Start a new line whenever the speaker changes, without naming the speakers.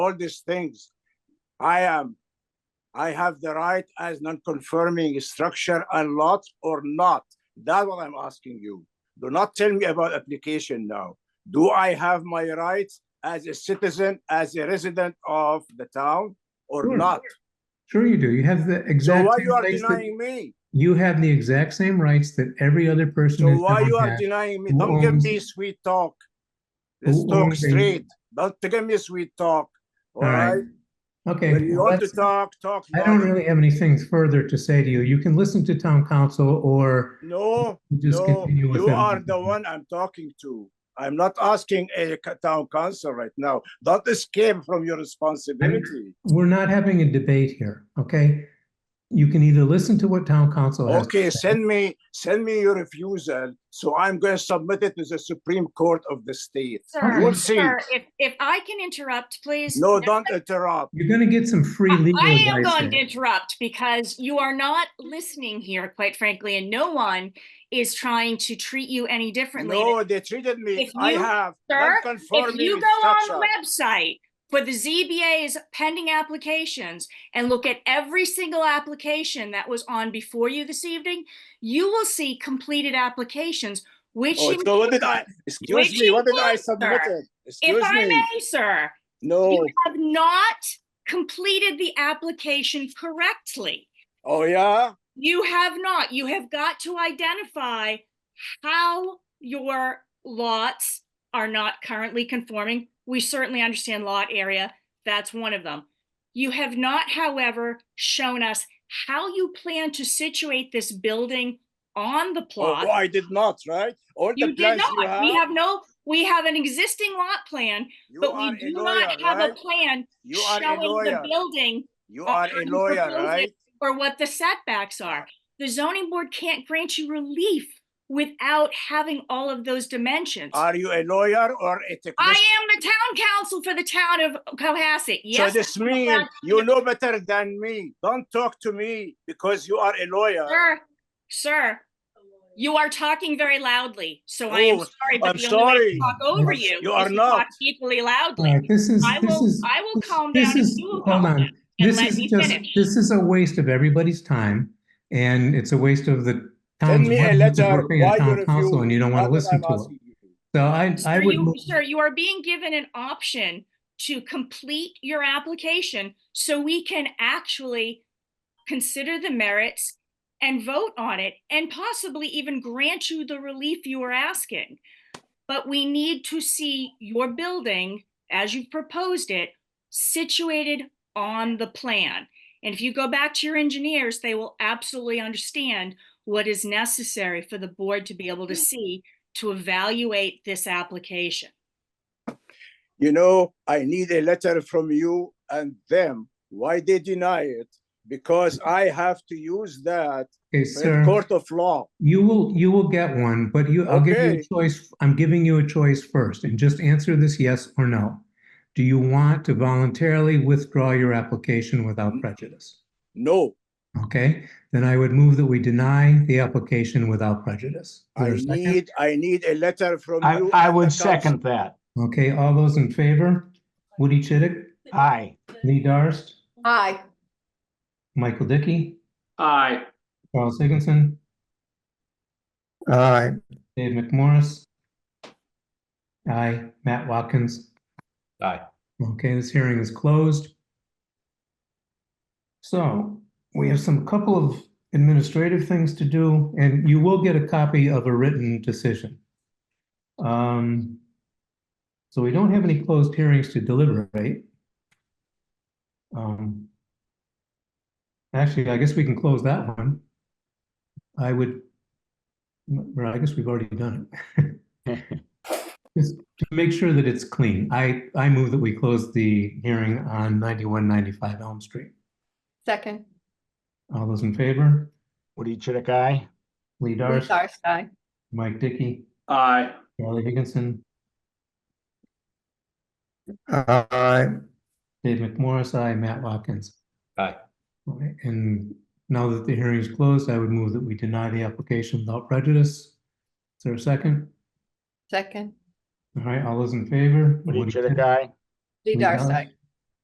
all these things. I am, I have the right as non-conforming structure a lot or not. That's what I'm asking you. Do not tell me about application now. Do I have my rights as a citizen, as a resident of the town or
Sure.
not?
Sure you do. Hmm. You have the
So
exact
why
same
you are
rights that-
denying me?
you have the exact same rights that every other person
So
in
why
town
you are
has.
denying me?
who
Don't give
owns-
me sweet talk. Let's
who
talk
owns a-
straight. Don't give me sweet talk. All
All right.
right?
Okay.
When you
well,
want to
that's-
talk, talk.
I don't
now.
really have anything further to say to you. You can listen to town council or
No,
just
no,
continue with
you
them.
are the one I'm talking to. I'm not asking a c- town council right now. Don't escape from your responsibility.
We're not having a debate here, okay? You can either listen to what town council has. to
Okay,
say-
send me, send me your refusal, so I'm going to submit it to the Supreme Court of the state.
Okay.
We'll
Sir,
see.
sir, if, if I can interrupt, please.
No, don't interrupt.
You're gonna get some free
I
legal
I am
advice.
going to
here.
interrupt because you are not listening here, quite frankly, and no one is trying to treat you any differently.
No, they treated me,
If
I
you-
have
Sir, if
non-conforming
you go on
structure.
the website for the ZBA's pending applications and look at every single application that was on before you this evening, you will see completed applications, which.
Oh,
in-
so what did I, excuse me, what did I
Which
submit
you
it?
If
Excuse
I
me,
may, sir,
no,
you have not completed the application correctly.
oh, yeah?
You have not. You have got to identify how your lots are not currently conforming. We certainly understand lot area. That's one of them. You have not, however, shown us how you plan to situate this building on the
Oh,
plot.
I did not, right? All the
You did
plans you
not. We
have,
have no, we have an existing lot plan,
you
but
are
we
a
do
lawyer,
not have a
right?
plan
You are a
showing the
lawyer,
building
you are a
on
lawyer,
proposal
right?
Or what the setbacks are. The zoning board can't grant you relief without having all of those dimensions. I
Are you a lawyer or a technician?
am the town council for the town of Cohasset.
So
Yes,
this means
allowed
you know better than me, don't talk to me because you are a lawyer.
sir, sir. You are talking very loudly, so I am
Oh,
sorry, but
I'm
the only way
sorry.
to talk over
Yes,
you
you are
is to talk
not.
equally
All
loudly.
right, this is,
I
this
will-
is.
I will
this-
calm
this
down if
is-
you will calm
Hold on.
down and
This
let
is
me
just,
finish.
this is a waste of everybody's time and it's a waste of the
Send
town's
me a
workers
letter,
working
why
on
you
town
refuse?
council and you don't want to
That's what
listen
I'm
to it.
asking you.
So I, I
Sir,
would,
you,
move-
sir, you are being given an option to complete your application so we can actually consider the merits and vote on it and possibly even grant you the relief you are asking. But we need to see your building, as you've proposed it, situated on the plan. And if you go back to your engineers, they will absolutely understand what is necessary for the board to be able to see to evaluate this application.
you know, I need a letter from you and them. Why they deny it? Because I have to use that
okay,
in
sir,
court of law.
you will, you will get one, but you, I'll give you
Okay.
a choice. I'm giving you a choice first and just answer this yes or no. Do you want to voluntarily withdraw your application without
Mm-hmm.
prejudice?
No,
Okay, then I would move that we deny the application without prejudice. Is
I
there a second?
need, I need a letter from
I,
you.
I
and the
would
council.
second that.
Okay, all those in favor? Woody Chidick,
Aye.
Lee Darst,
Aye.
Michael Dickey,
Aye.
Charles Higginson,
Aye,
Dave McMorris. Aye, Matt Watkins.
Aye.
Okay, this hearing is closed. So we have some couple of administrative things to do, and you will get a copy of a written decision. Um, so we don't have any closed hearings to deliberate. Um, actually, I guess we can close that one. I would, well, I guess we've already done it. Just to make sure that it's clean, I, I move that we close the hearing on ninety-one ninety-five Elm Street.
Second.
All those in favor?
Woody Chidick, aye.
Lee
Lee
Darst,
Darst, aye.
Mike Dickey,
Aye.
Charlie Higginson,
aye,
Dave McMorris, I, Matt Watkins.
Aye.
All right, And now that the hearing is closed, I would move that we deny the application without prejudice. Is there a second?
Second.
All right, all those in favor?
Woody
Woody
Chidick,
Chidick,
aye.
Lee
Lee
Darst,
Darst.
aye.